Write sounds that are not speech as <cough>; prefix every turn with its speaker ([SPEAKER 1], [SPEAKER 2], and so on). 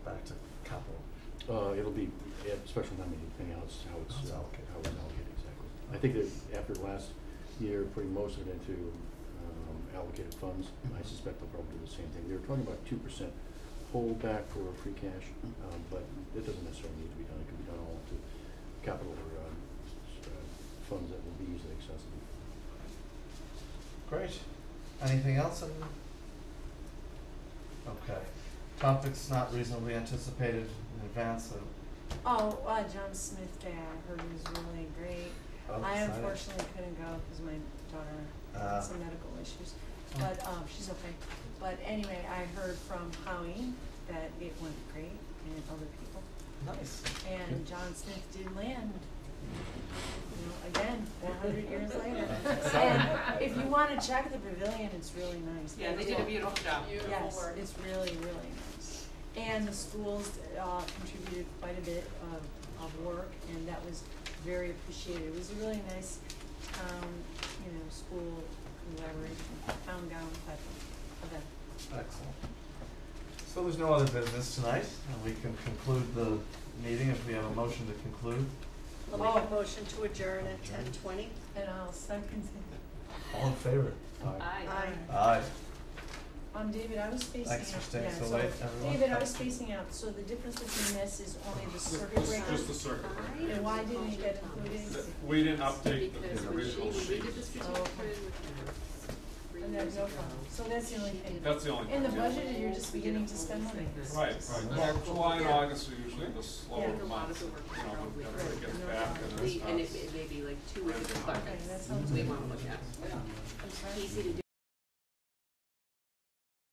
[SPEAKER 1] couple?
[SPEAKER 2] Uh, it'll be, yeah, special town meeting, depending on how it's, how
[SPEAKER 1] How it's
[SPEAKER 2] it's allocated,
[SPEAKER 1] allocated.
[SPEAKER 2] how it's allocated, exactly. I think that after last year, putting most of it into, um, allocated funds, I
[SPEAKER 1] Mhm.
[SPEAKER 2] suspect they'll probably do the same thing. They were talking about two percent holdback for free cash, um, but it doesn't necessarily need to be done, it can be done all to capital or, um, s- uh, funds that will be easily accessible.
[SPEAKER 1] Great. Anything else in? Okay. Topics not reasonably anticipated in advance of.
[SPEAKER 3] Oh, uh, John Smith Day, I heard was really great.
[SPEAKER 1] of
[SPEAKER 3] I
[SPEAKER 1] deciding-
[SPEAKER 3] unfortunately couldn't go because my daughter
[SPEAKER 1] Oh, Ah.
[SPEAKER 3] had some medical issues,
[SPEAKER 1] Oh.
[SPEAKER 3] but, um, she's okay. But anyway, I heard from Howie that it went great and other people,
[SPEAKER 1] Nice.
[SPEAKER 3] and John Smith did land. You know, again, four hundred years
[SPEAKER 1] <laughs>
[SPEAKER 3] later.
[SPEAKER 1] That's
[SPEAKER 3] And if you wanna check the pavilion, it's really nice.
[SPEAKER 4] Yeah, they did a beautiful job.
[SPEAKER 3] Yes, it's really, really nice. And the schools uh, contributed quite a bit of, of work, and that was very appreciated. It was a really nice town, you know, school collaboration, town gown type of event.
[SPEAKER 1] Excellent. So there's no other business tonight, and we can conclude the meeting if we have a motion to conclude.
[SPEAKER 5] I'll make a motion to adjourn at
[SPEAKER 1] Adjourn.
[SPEAKER 5] ten twenty.
[SPEAKER 3] And I'll second
[SPEAKER 1] All in favor?
[SPEAKER 4] Aye.
[SPEAKER 3] it.
[SPEAKER 1] Aye.
[SPEAKER 3] Um, David, I was spacing out, yeah,
[SPEAKER 1] Thanks
[SPEAKER 3] so.
[SPEAKER 1] for staying so late, everyone.
[SPEAKER 3] David, I was spacing out, so the difference between this is only the circuit breaker.
[SPEAKER 6] Just the circuit breaker.
[SPEAKER 3] And why didn't it get included?
[SPEAKER 6] Th- We didn't update
[SPEAKER 4] Because
[SPEAKER 6] the
[SPEAKER 4] when she,
[SPEAKER 6] original
[SPEAKER 4] when we
[SPEAKER 6] sheet.
[SPEAKER 4] did the strategic
[SPEAKER 3] Oh.
[SPEAKER 4] plan with her three
[SPEAKER 3] And there's
[SPEAKER 4] years
[SPEAKER 3] no
[SPEAKER 4] ago.
[SPEAKER 3] problem, so that's the only thing.
[SPEAKER 6] That's the only
[SPEAKER 3] In
[SPEAKER 6] thing.
[SPEAKER 3] the
[SPEAKER 6] yeah.
[SPEAKER 3] budget, you're just beginning to spend money.
[SPEAKER 6] Right, right. Well, July and
[SPEAKER 4] Yeah.
[SPEAKER 6] August are usually the
[SPEAKER 3] Yeah.
[SPEAKER 4] Like a
[SPEAKER 6] slower
[SPEAKER 4] lot of
[SPEAKER 6] months,
[SPEAKER 4] the
[SPEAKER 6] you
[SPEAKER 4] work
[SPEAKER 6] know,
[SPEAKER 4] probably-
[SPEAKER 6] when everybody gets
[SPEAKER 3] Right.
[SPEAKER 6] back and there's
[SPEAKER 4] We,
[SPEAKER 6] not.
[SPEAKER 4] and it may, it may be like two or three
[SPEAKER 6] Okay,
[SPEAKER 4] departments
[SPEAKER 3] that sounds good.
[SPEAKER 4] we wanna look at.
[SPEAKER 3] I'm sorry?
[SPEAKER 4] Easy to do.